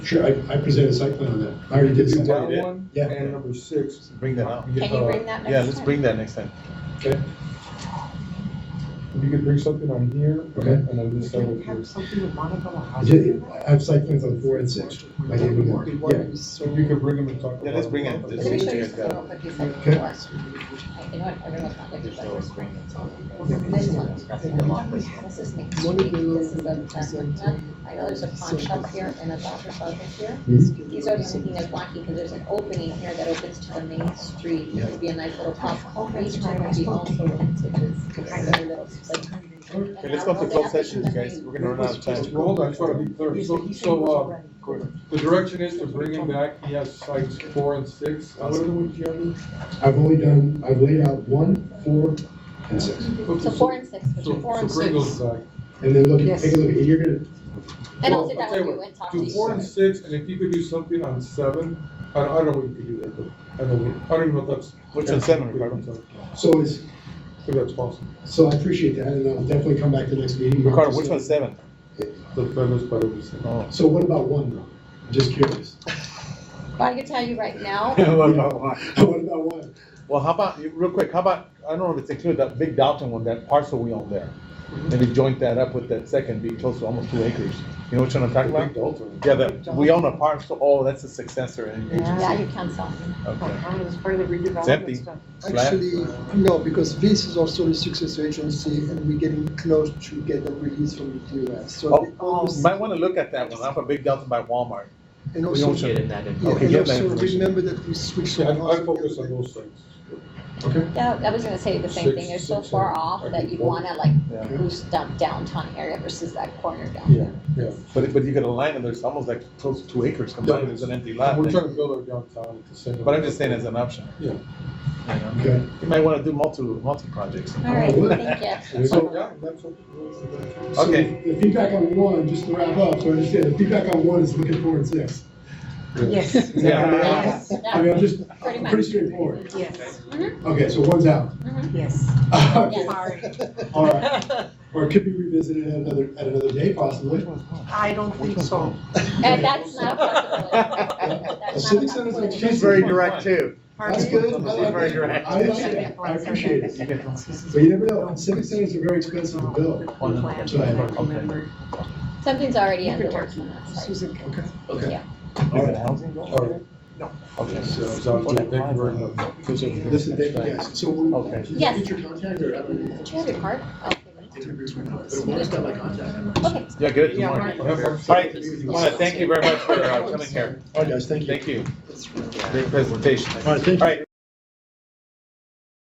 Sure, I, I presented a site plan on that. I already did. You site plan. got did. one, Yeah. and number six. Bring that out. Can you bring that next time? Oh, Yeah, let's bring that next time. Okay, If you could bring something on here, Okay. and on this side of Can you here. have something with Monica I Lahaj? did- I have site plans on four and six. I gave them more. Yeah, So if you could bring them and talk about. Yeah, let's bring it. them. Let's Let me see show what you you something real got. quick, you said Okay. before. I- You know what, everyone's not looking, but we're spring. This one, this is next street, this is the, that's one, done. I know there's a pawn shop here and a doctor's office here. These are the only thing that's blocking, because there's an opening here that opens to the main street, it would be a nice little pop, each time would be also, it's kind of a little, like. Okay, let's go to closed sessions, guys. We're gonna run out of time. Well, Hold on, I just want to be clear. So, so, uh, the direction is to bring him back. He has sites four and six. What are the ones you have? I've only done, I've laid out one, four, and six. So four and six, which So, are four and so bring six. those back. And then look, Yes. take a look, and you're gonna, And I'll Well, sit I'll down tell with you you what, and talk to Do you. four and six, and if you could do something on seven, I don't, I don't know if you could do that, but I don't, I don't even know if that's. Which one's seven, Ricardo? so it's, If that's possible. so I appreciate that, and I'll definitely come back to next meeting. Ricardo, which one's seven? The premise, but I'm just saying. Oh. So what about one, though? I'm Just curious. But I can tell you right now, What about one? What about one? Well, how about, real quick, how about, I don't know if it's included, that big Dalton one, that parcel we own there. Maybe joint that up with that second, be close to almost two acres. You know which one I'm talking Big about? Dalton. Yeah, that, we own a parcel, oh, that's a successor in yeah, agency. you can sell. Okay. It's part of the It's empty. redevelopment stuff. Slab. Actually, no, because this is also the successor agency, and we're getting close to get a release from the US. So Oh, they almost- Might wanna look at that one, I'm a big Dalton by Walmart. and We also, own it. that yeah, Okay, and get that also information. remember that we switched. Yeah, from I, I house- focus on those things. Yeah, I was gonna say the same thing, Six- you're so six, far seven, off like that you'd four. wanna like Yeah. boost down downtown area versus that corner down Yeah, there. yeah. But, but you get a line and there's almost like close to two acres combined, there's an empty lot. We're there. trying to build our downtown at the same. But I'm just saying as an option. Yeah. You know? Okay, You might wanna do multi, multi projects. All right, thank you. So, yeah, that's what. so Okay. The feedback on one, just to wrap up, so I understand, the feedback on one is looking four and six. Yes. Yeah. I mean, I'm just, Pretty I'm pretty much. straightforward. Yes, Okay, so one's out. Mm-hmm, yes. Okay. Sorry. All right. Or it could be revisited at another, at another day possibly. I don't think so. And that's not a possibility. The That's civic not a center's possibility. expensive. direct too. That's Pardon? good. I She's like very that. direct. I like it. I appreciate it. But you never know. Civic centers are very expensive to build. Oh, no. Plan, Sorry. I remember. Something's already in the works on that site. Susan. Okay. Is it housing? Alright. Okay. So, so, thank you very uh, much. Listen, thank you guys. So we'll. Okay. Yes. Get your contact or have an Do you have your card? Okay, interview with us. But I just got my contact. Okay. Yeah, good, Yeah, tomorrow. right. All right, wanna thank you very much for uh, coming here. All right, guys, thank you. Thank you. Great presentation. All right, thank you. All right,